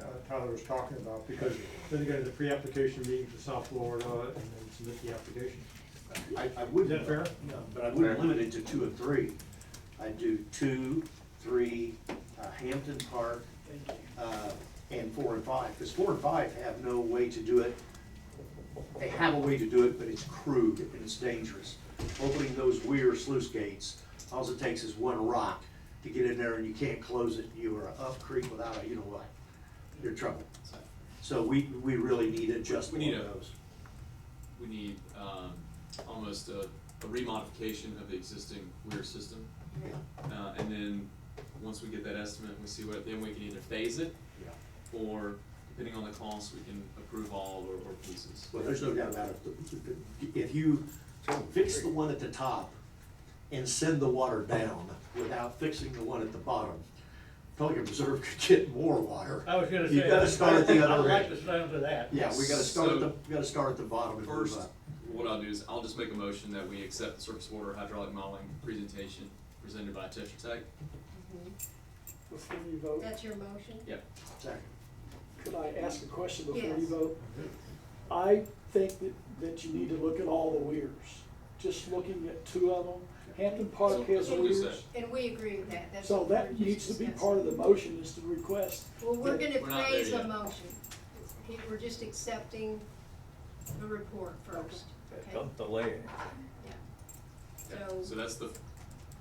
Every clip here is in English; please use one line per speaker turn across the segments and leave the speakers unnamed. uh, Tyler was talking about, because then they go to the pre-application meeting for South Florida and then submit the application.
I, I
Is
wouldn't.
that fair?
No, but I wouldn't
Fair.
limit it to two or three. I'd do two, three, uh, Hampton Park, uh, and four and five, because four and five have no way to do it. They have a way to do it, but it's crude and it's dangerous. Opening those weir sluice gates, alls it takes is one rock to get in there and you can't close it. You are up creek without a, you know what, you're in trouble. So we, we really need to adjust
We
one
need
of
a-
those.
We need, um, almost a, a remodification of the existing weir system.
Yeah.
Uh, and then, once we get that estimate, we see what, then we can either phase it,
Yeah.
or depending on the cost, we can approve all or, or pieces.
Well, there's no doubt about it. If you fix the one at the top and send the water down without fixing the one at the bottom, Pelican Reserve could get more water.
I was gonna say.
You gotta start at the
I
other
like
end.
the sound of that.
Yeah, we gotta start at the,
So-
we gotta start at the bottom and move
First,
up.
what I'll do is, I'll just make a motion that we accept the surface water hydraulic modeling presentation presented by Tetra Tech.
Before you vote,
That's your motion?
Yep.
Second.
could I ask a question before you
Yes.
vote? I think that, that you need to look at all the weirs, just looking at two of them. Hampton
So,
Park has
that's what we
weirs.
said.
And we agree with that, that's.
So
what we're
that
just
needs to be
discussing.
part of the motion is to request.
Well, we're
that-
gonna
We're not there
praise a
yet.
motion. He- We're just accepting the report first, okay?
Don't delay it.
So-
So that's the,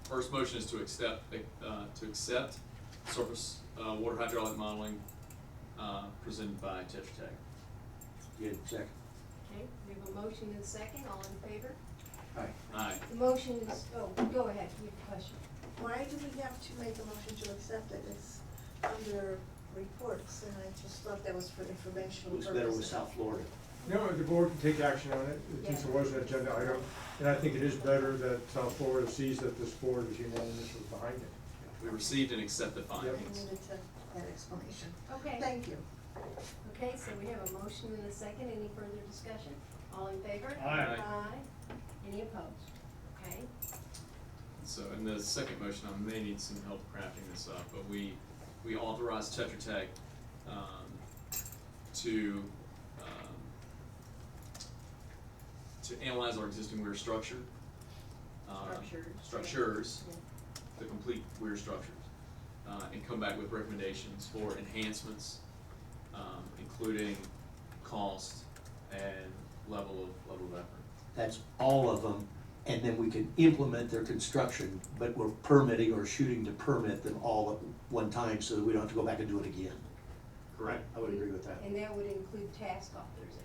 first motion is to accept, uh, to accept surface, uh, water hydraulic modeling, uh, presented by Tetra Tech.
Yeah, second.
Okay, we have a motion and a second, all in favor?
All right.
Aye.
The motion is, oh, go ahead, you have a question.
Why do we have to make a motion to accept it? It's under reports, and I just thought that was for informational
Looks better with
purposes.
South Florida.
No, the board can take action on it, since it was an agenda item, and I think it is better that South Florida sees that this board is unanimous with behind it.
We received and accept the
I
findings.
needed to, that explanation.
Okay,
Thank you.
okay, so we have a motion and a second, any further discussion? All in favor?
Aye.
Aye. Any opposed? Okay,
So in the second motion, I may need some help crafting this up, but we, we authorize Tetra Tech, um, to, um, to analyze our existing weir structure. um,
Structures, yeah.
Structures,
Yeah.
the complete weir structures, uh, and come back with recommendations for enhancements, um, including cost and level of, level of effort.
That's all of them, and then we can implement their construction, but we're permitting or shooting to permit them all at one time so that we don't have to go back and do it again.
Correct.
I would agree with that.
And that would include task authorization.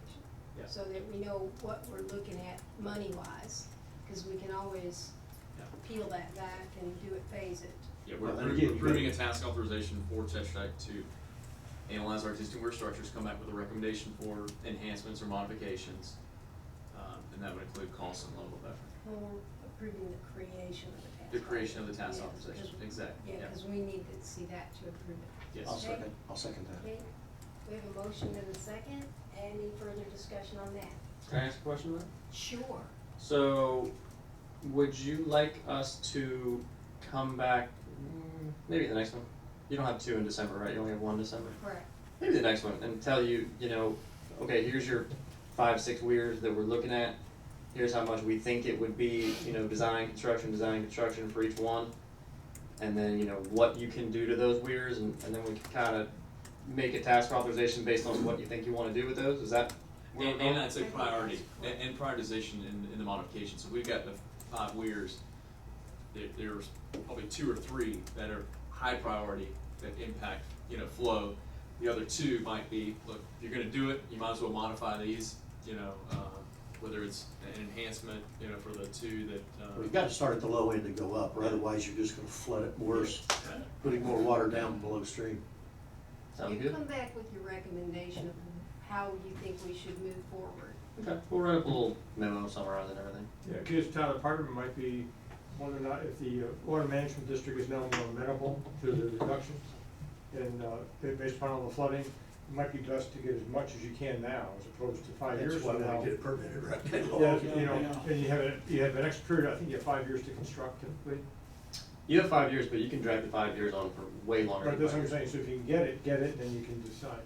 Yeah.
So that we know what we're looking at money-wise, because we can always
Yeah.
peel that back and do it, phase it.
Yeah, we're
Well, and
appro-
again,
we're
you
approving a
gotta-
task authorization for Tetra Tech to analyze our existing weir structures, come back with a recommendation for enhancements or modifications. Um, and that would include cost and level of effort.
When we're approving the creation of the task.
The creation of the task
Yeah,
authorization,
'cause-
exactly,
Yeah,
yeah,
because we need to see that to approve it.
yes.
I'll second, I'll second that.
Okay, we have a motion and a second. Any further discussion on that?
Can I ask a question then?
Sure.
So, would you like us to come back, mm, maybe the next one? You don't have two in December, right? You only have one in December?
Correct.
Maybe the next one and tell you, you know, okay, here's your five, six weirs that we're looking at. Here's how much we think it would be, you know, design, construction, design, construction for each one. And then, you know, what you can do to those weirs and, and then we can kind of make a task authorization based on what you think you want to do with those. Is that where we're
And,
going?
and I'd say
I think
priority,
that's-
and, and prioritization in, in the modification, so we've got the five weirs. There, there's probably two or three that are high priority that impact, you know, flow. The other two might be, look, if you're gonna do it, you might as well modify these, you know, uh, whether it's an enhancement, you know, for the two that, uh.
We've got to start at the low end and go up, or otherwise you're just gonna flood it worse, putting more water down below stream.
Sound
You
good?
come back with your recommendation of how you think we should move forward.
Okay, we'll write up a little memo summarizing everything.
Yeah, because Tyler, part of it might be, whether or not, if the uh, water management district is now more amenable to the reductions, and, uh, ba- based upon all the flooding, it might be best to get as much as you can now, as opposed to five years
That's why
from
we
now.
want to get it permitted right now.
Yeah, you know,
Yeah.
and you have, a- you have an extra period, I think you have five years to construct typically,
You have five years, but you can drag the five years on for way longer.
but
than
that's
five
what I'm
years.
saying, so if you can get it, get it, then you can decide.